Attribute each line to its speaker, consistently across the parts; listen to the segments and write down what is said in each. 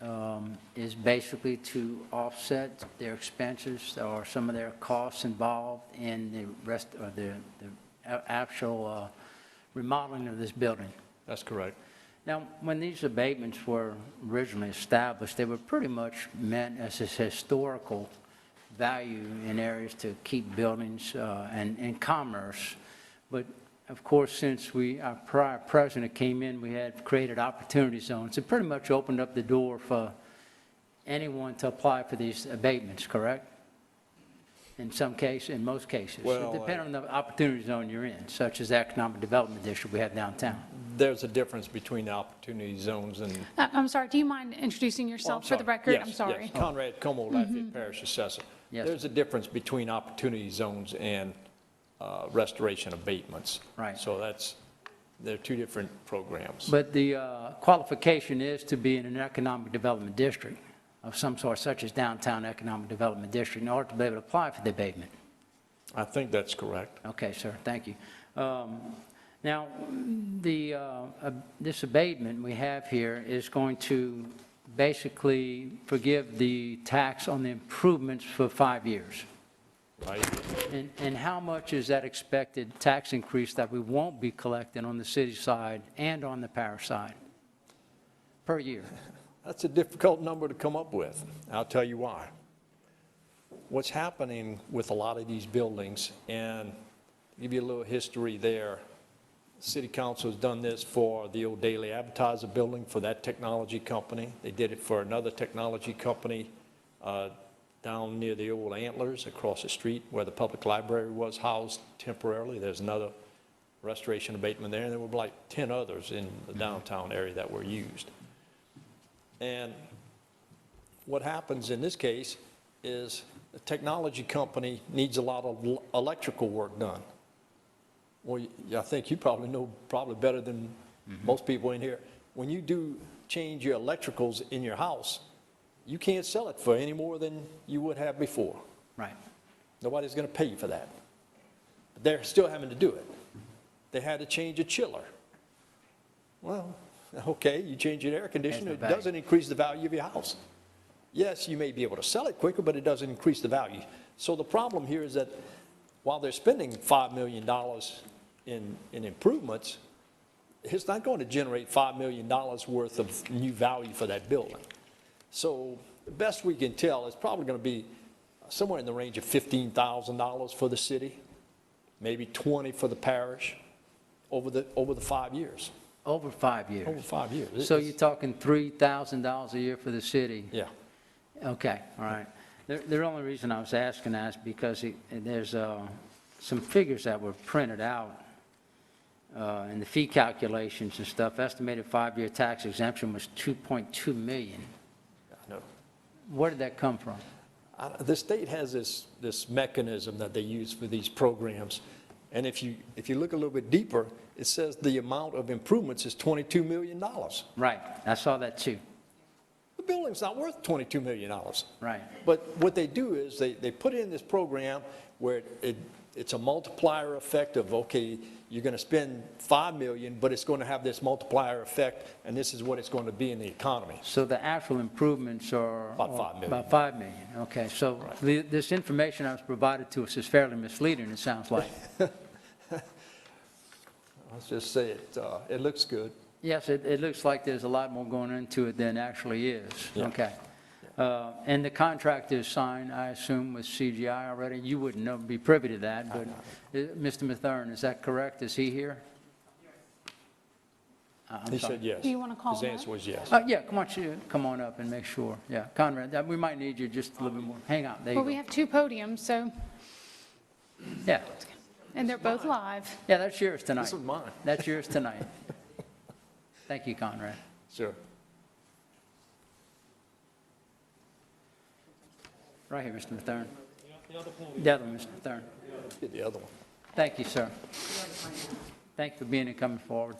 Speaker 1: um, is basically to offset their expenses or some of their costs involved in the rest, or the, the a- actual uh, remodeling of this building.
Speaker 2: That's correct.
Speaker 1: Now, when these abatements were originally established, they were pretty much meant as this historical value in areas to keep buildings uh, and, and commerce. But of course, since we, our prior president came in, we had created opportunity zones. It pretty much opened up the door for anyone to apply for these abatements, correct? In some cases, in most cases.
Speaker 2: Well, uh,
Speaker 1: Depending on the opportunity zone you're in, such as the economic development district we have downtown.
Speaker 2: There's a difference between the opportunity zones and.
Speaker 3: I- Uh, I'm sorry, do you mind introducing
Speaker 2: Oh, I'm
Speaker 3: yourself for the
Speaker 2: sorry.
Speaker 3: record?
Speaker 2: Yes,
Speaker 3: I'm
Speaker 2: yes.
Speaker 3: sorry. Mm-hmm.
Speaker 2: Conrad Como, Lafayette Parish Assessor.
Speaker 1: Yes.
Speaker 2: There's a difference between opportunity zones and uh, restoration abatements.
Speaker 1: Right.
Speaker 2: So that's, they're two different programs.
Speaker 1: But the uh, qualification is to be in an economic development district of some sort, such as downtown economic development district, in order to be able to apply for the abatement.
Speaker 2: I think that's correct.
Speaker 1: Okay, sir, thank you. Um, Now, the, uh, ab- this abatement we have here is going to basically forgive the tax on the improvements for five years.
Speaker 2: Right?
Speaker 1: And, and how much is that expected tax increase that we won't be collecting on the city side and on the parish side per year?
Speaker 2: That's a difficult number to come up with. I'll tell you why. What's happening with a lot of these buildings, and give you a little history there. City Council has done this for the old Daily Advertiser building for that technology company. They did it for another technology company uh, down near the old Antlers across the street where the public library was housed temporarily. There's another restoration abatement there, and there were like 10 others in the downtown area that were used. And what happens in this case is a technology company needs a lot of l- electrical work done. Well, y- I think you probably know probably better than most people in here. When you do change your electricals in your house, you can't sell it for any more than you would have before.
Speaker 1: Right.
Speaker 2: Nobody's going to pay you for that. But they're still having to do it. They had to change a chiller. Well, okay, you change your air conditioner,
Speaker 1: Adds
Speaker 2: it
Speaker 1: the value.
Speaker 2: doesn't increase the value of your house. Yes, you may be able to sell it quicker, but it doesn't increase the value. So the problem here is that while they're spending $5 million in, in improvements, it's not going to generate $5 million worth of new value for that building. So the best we can tell, it's probably going to be somewhere in the range of $15,000 for the city, maybe 20 for the parish, over the, over the five years,
Speaker 1: Over five
Speaker 2: over
Speaker 1: years.
Speaker 2: five years.
Speaker 1: So you're talking $3,000 a year for the city?
Speaker 2: Yeah,
Speaker 1: Okay, all right. The, the only reason I was asking that is because it- there's uh, some figures that were printed out uh, in the fee calculations and stuff. Estimated five-year tax exemption was 2.2 million.
Speaker 2: I know.
Speaker 1: Where did that come from?
Speaker 2: I- The state has this, this mechanism that they use for these programs. And if you, if you look a little bit deeper, it says the amount of improvements is $22 million. The
Speaker 1: Right, I saw that too.
Speaker 2: building's not worth $22 million.
Speaker 1: Right,
Speaker 2: But what they do is they, they put in this program where it, it's a multiplier effect of, okay, you're going to spend 5 million, but it's going to have this multiplier effect, and this is what it's going to be in the economy.
Speaker 1: so the actual improvements are...
Speaker 2: About five million.
Speaker 1: About 5 million, okay. So the- this information I was provided to us is fairly misleading, it sounds like.
Speaker 2: Let's just say it, uh, it looks good.
Speaker 1: Yes, it, it looks like there's a lot more going into it than actually is.
Speaker 2: Yeah.
Speaker 1: Okay. Uh, And the contract is signed, I assume, with CGI already? You wouldn't know, be privy to that, but
Speaker 2: Uh-huh.
Speaker 1: uh, Mr. Mathern, is that correct? Is he here? Uh, I'm
Speaker 2: He
Speaker 1: sorry.
Speaker 2: said yes.
Speaker 3: Do you wanna call him
Speaker 2: His answer
Speaker 3: up?
Speaker 2: was yes.
Speaker 1: Uh, Yeah, come on, you- come on up and make sure. Yeah, Conrad, that- we might need you just a little bit more. Hang on, there you
Speaker 3: Well, we
Speaker 1: go.
Speaker 3: have two podiums, so,
Speaker 1: Yeah,
Speaker 3: and they're both live.
Speaker 1: yeah, that's yours tonight.
Speaker 2: This is mine.
Speaker 1: That's yours tonight. Thank you, Conrad.
Speaker 2: Sure.
Speaker 1: Right here, Mr. Mathern. The other Mr. Mathern.
Speaker 2: Get the other one.
Speaker 1: Thank you, sir. Thank you for being and coming forward.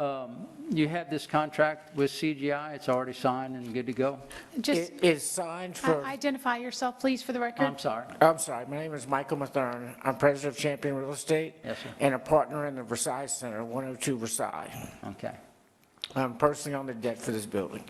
Speaker 1: Um, You have this contract with CGI, it's already signed and good to go?
Speaker 3: Just
Speaker 4: It is signed
Speaker 3: i-
Speaker 4: for,
Speaker 3: identify yourself, please, for the record.
Speaker 1: I'm sorry.
Speaker 4: I'm sorry, my name is Michael Mathern. I'm president of Champion Real Estate.
Speaker 1: Yes, sir.
Speaker 4: And a partner in the Versailles Center, 102 Versailles.
Speaker 1: Okay.
Speaker 4: I'm personally on the debt for this building.